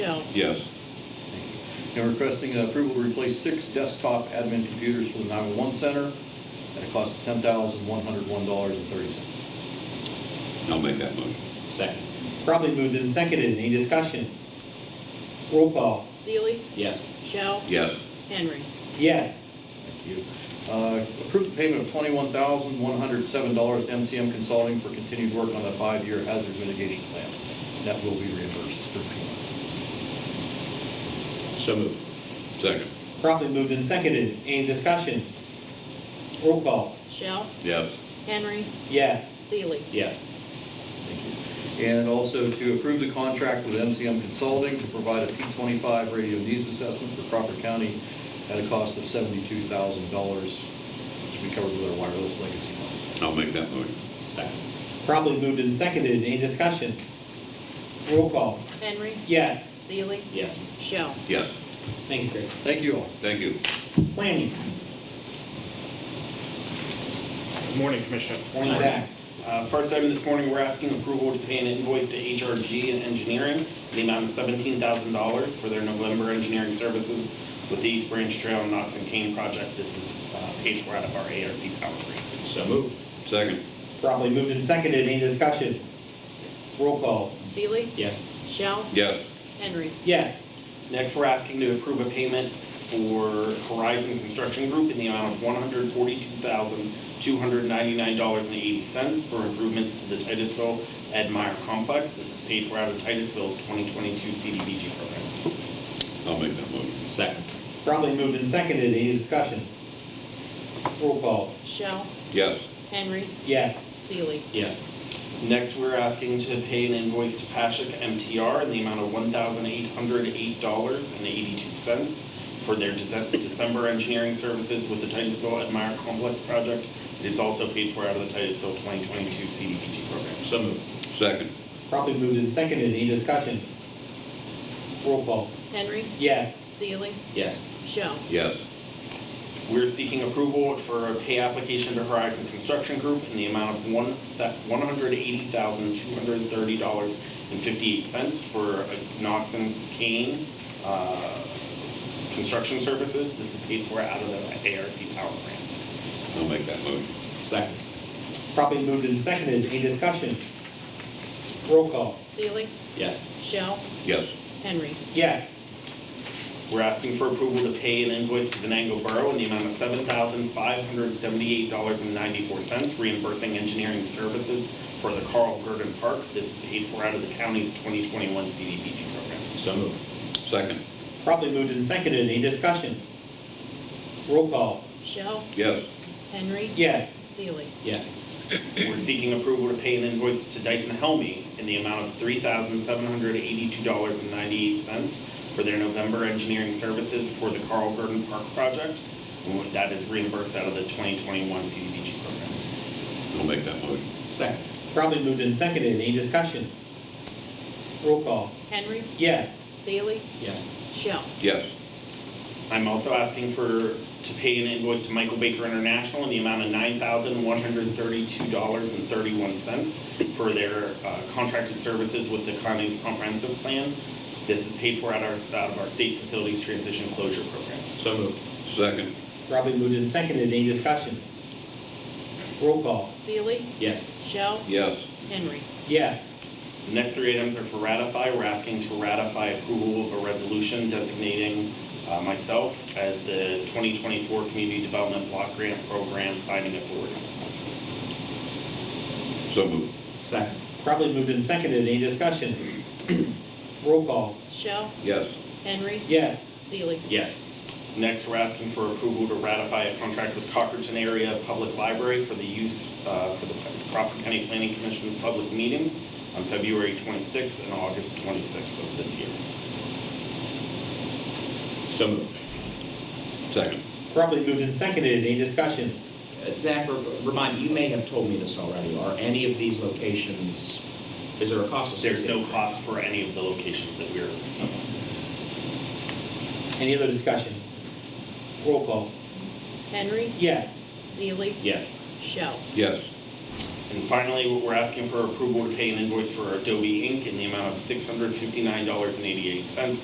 Brown? Yes. And requesting approval to replace six desktop admin computers for the 911 center at a cost of $10,101.30. I'll make that motion. Second. Probably moved and seconded. Any discussion? Roll call. Seely, Yes. Shell, Yes. Henry. Yes. Thank you. Uh, Approve the payment of $21,107 to MCM Consulting for continued work on the five-year hazard mitigation plan. That will be reimbursed through payment. So moved. Second. Probably moved and seconded. Any discussion? Roll call. Shell, Yes. Henry, Yes. Seely. Yes. Thank you. And also to approve the contract with MCM Consulting to provide a P25 radio needs assessment for Crawford County at a cost of $72,000, which we covered with our wireless legacy funds. I'll make that motion. Second. Probably moved and seconded. Any discussion? Roll call. Henry, Yes. Seely, Yes. Shell. Yes. Thank you, Greg. Thank you all. Thank you. Planning. Good morning, Commissioners. Morning, Zach. Uh, First item this morning, we're asking approval to pay an invoice to HRG and Engineering in the amount of $17,000 for their November engineering services with the East Branch Trail Knox and Kane project. This is uh, paid for out of our ARC power grid. So moved. Second. Probably moved and seconded. Any discussion? Roll call. Seely, Yes. Shell, Yes. Henry. Yes. Next, we're asking to approve a payment for Horizon Construction Group in the amount of $142,299.80 for improvements to the Titusville Ed Meyer complex. This is paid for out of Titusville's 2022 CDBG program. I'll make that motion. Second. Probably moved and seconded. Any discussion? Roll call. Shell, Yes. Henry, Yes. Seely. Yes. Next, we're asking to pay an invoice to Pashak MTR in the amount of one thousand eight hundred eight dollars and eighty-two cents for their Dece- December engineering services with the Titusville Admire Complex project. It is also paid for out of the Titusville twenty twenty-two CDBG program. So moved. Second. Probably moved and seconded. Any discussion? Roll call. Henry, Yes. Seely, Yes. Shell. Yes. We're seeking approval for a pay application to Horizon Construction Group in the amount of one, that one hundred eighty thousand, two hundred and thirty dollars and fifty-eight cents for a Knox and Kane, uh, construction services. This is paid for out of the ARC power grant. I'll make that motion. Second. Probably moved and seconded. Any discussion? Roll call. Seely, Yes. Shell, Yes. Henry. Yes. We're asking for approval to pay an invoice to Venango Borough in the amount of seven thousand, five hundred and seventy-eight dollars and ninety-four cents, reimbursing engineering services for the Carl Gurdon Park. This is paid for out of the county's twenty twenty-one CDBG program. So moved. Second. Probably moved and seconded. Any discussion? Roll call. Shell, Yes. Henry. Yes. Seely. Yes. We're seeking approval to pay an invoice to Dyson Helmy in the amount of three thousand seven hundred eighty-two dollars and ninety-eight cents for their November engineering services for the Carl Gurdon Park project. And That is reimbursed out of the twenty twenty-one CDBG program. I'll make that motion. Second. Probably moved and seconded. Any discussion? Roll call. Henry, Yes. Seely, Yes. Shell. Yes. I'm also asking for, to pay an invoice to Michael Baker International in the amount of nine thousand one hundred thirty-two dollars and thirty-one cents for their uh, contracted services with the Connie's comprehensive plan. This is paid for out of our, out of our state facilities transition closure program. So moved. Second. Probably moved and seconded. Any discussion? Roll call. Seely, Yes. Shell, Yes. Henry. Yes. The next three items are for ratify. We're asking to ratify approval of a resolution designating uh, myself as the 2024 Community Development Block Grant Program signing authority. So moved. Second. Probably moved and seconded. Any discussion? Roll call. Shell, Yes. Henry. Yes. Seely. Yes. Next, we're asking for approval to ratify a contract with Cockerton Area Public Library for the use, uh, for the Crawford County Planning Commission's public meetings on February 26th and August 26th of this year. So moved. Second. Probably moved and seconded. Any discussion? Uh, Zach, re- remind, you may have told me this already. Are any of these locations, is there a cost There's associated? no cost for any of the locations that we're, Any other discussion? Roll call. Henry, Yes. Seely, Yes. Shell. Yes. And finally, we're asking for approval to pay an invoice for Adobe Inc. in the amount of $659.88